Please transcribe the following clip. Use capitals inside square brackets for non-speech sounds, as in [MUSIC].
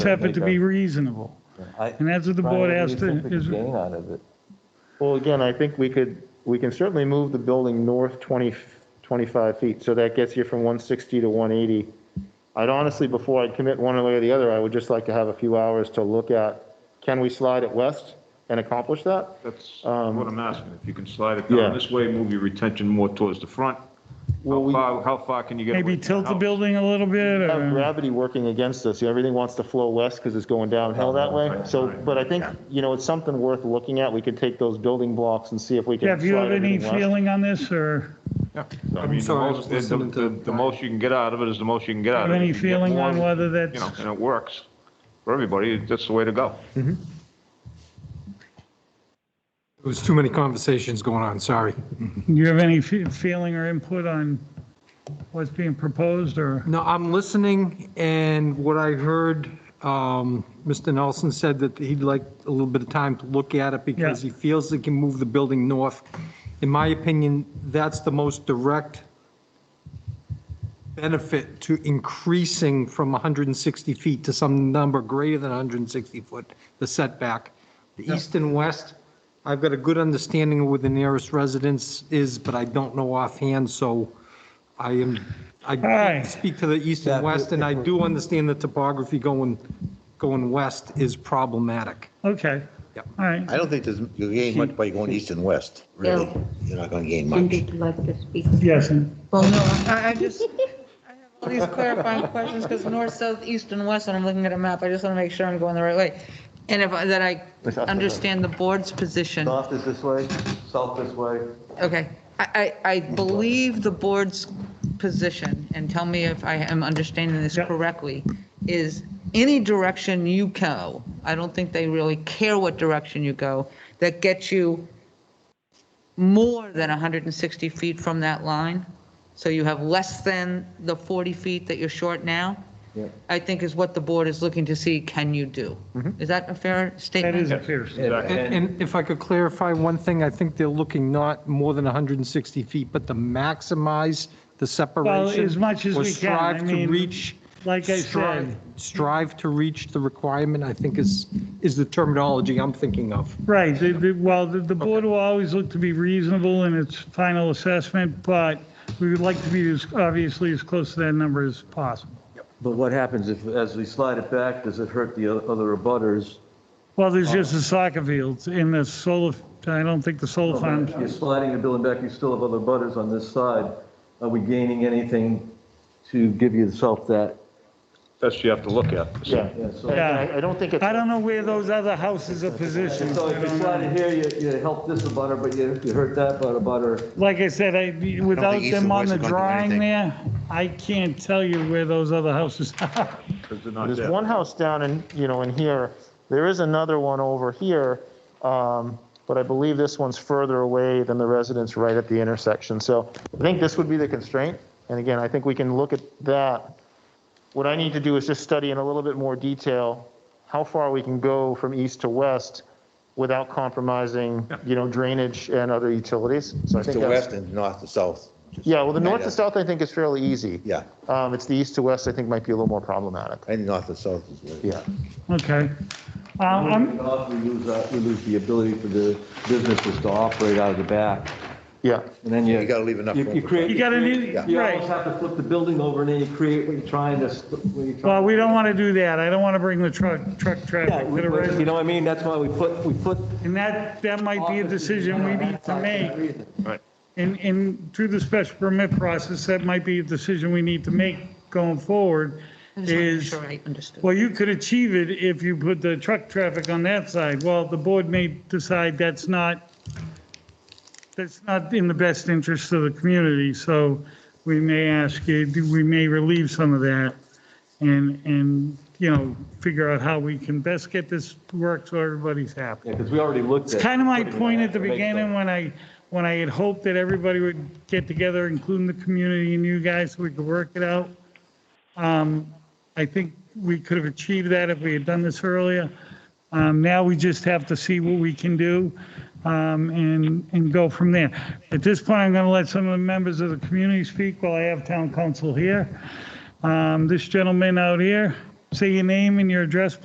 have it to be make reasonable. I- And that's what the Brian, board what do you has to, think we could is, Gain out of it. Well, again, I think we could, we can certainly move the building north 20, 25 feet, so that gets you from 160 to 180. I'd honestly, before I commit one way or the other, I would just like to have a few hours to look at, can we slide it west and accomplish that? That's Um, what I'm asking. If you can slide it Yeah. down this way, move your retention more towards the front. Well, How we- far, how far can you get? away maybe from tilt the house? building a little bit, have or, gravity working against us. Everything wants to flow west because it's going downhill that way. So, but I think, you know, it's something worth looking at. We could take those building blocks and see if we can. Jeff, you have slide any everything west. feeling on this, or Yeah. I mean, the sorry, I was most, the- listening the- to- the most you can get out of it is the most you can get out have of it. any You get feeling more, on whether You that's, know, and it works for everybody. That's the way to go. There was too many conversations going on, sorry. you have any fe- feeling or input on what's being proposed, or? No, I'm listening, and what I heard, um, Mr. Nelson said that he'd like a little bit of time to look at it because he Yeah. feels he can move the building north. In my opinion, that's the most direct benefit to increasing from 160 feet to some number greater than 160 foot, the setback. The east and west, I've got a good understanding of where the nearest residence is, but I don't know offhand, so I am, I right. can't speak to the east and west, and I do understand the topography going, going west is problematic. Okay, Yep. all right. I don't think there's, you gain much by going east and west, really. Yeah. You're not gonna gain And much. they'd like to speak. Yes, Well, no, I, I just, I have all these clarifying questions, because north, south, east, and west, and I'm looking at a map, I just want to make sure I'm going the right way. And if, I- that I understand the board's position. North is this way, south this way. Okay, I, I, I believe the board's position, and tell me if I am understanding this Yep. correctly, is any direction you go, I don't think they really care what direction you go, that gets you more than 160 feet from that line, so you have less than the 40 feet that you're short now, I think is what the board is looking to see, can you do? Is that a fair that statement? is a fair statement. And and if I could clarify one thing, I think they're looking not more than 160 feet, but to maximize the separation. as much as or we can. I strive to mean, reach- like I strive- said- Strive to reach the requirement, I think is, is the terminology I'm thinking of. Right, the- the- well, the the board will always look to be reasonable in its final assessment, but we would like to be as, obviously, as close to that number as possible. But what happens if, as we slide it back, does it hurt the o- other abutters? Well, there's just the soccer fields in the solar, I don't think the solar farms, If You're sliding the building back, you still have other abutters on this side. Are we gaining anything to give yourself that? That's what you have to look at. Yeah, Yeah. I I don't think it's. I don't know where those other houses are positioned. So I if you don't slide it know. here, you, you help this abutter, but you, you hurt that abutter. Like I said, I, without east and them on west the are gonna do drawing anything. there, I can't tell you where those other houses are. [LAUGHS] Because they're not There's there. one house down in, you know, in here. There is another one over here, um, but I believe this one's further away than the residence right at the intersection. So I think this would be the constraint. And again, I think we can look at that. What I need to do is just study in a little bit more detail how far we can go from east to west without compromising, you know, drainage and other utilities. So I East to think that's- west and north to south. Just- Yeah, well, the north Yeah. to south, I think is fairly easy. Yeah, Um, it's the east to west, I think might be a little more problematic. and north to south is where. Yeah. Okay. Um, I'm- Off, We lose, uh, we lose the ability for the businesses to operate out of the back. Yeah. And then you. You gotta leave enough You room you for- create. You gotta create- leave- You right. almost have to flip the building over and then you create what you're trying to, s- what you're Well, trying. we don't want to do that. I don't want to bring the truck, truck traffic Yeah, to the You residence. know what I mean? That's why we put, we put And that, that might be a decision we need to make. Right. And, and through the special permit process, that might be a decision we need to make going forward I just wanna make is, Sure I understood. well, you could achieve it if you put the truck traffic on that side. Well, the board may decide that's not, that's not in the best interest of the community, so we may ask you, we may relieve some of that and, and, you know, figure out how we can best get this work so everybody's happy. Yeah, because we already looked at. It's kind of my point at the Make sense. beginning when I, when I had hoped that everybody would get together, including the community and you guys, so we could work it out. Um, I think we could have achieved that if we had done this earlier. Um, Now we just have to see what we can do um, and, and go from there. At this point, I'm going to let some of the members of the community speak while I have town council here. Um, This gentleman out here Say your name and your address,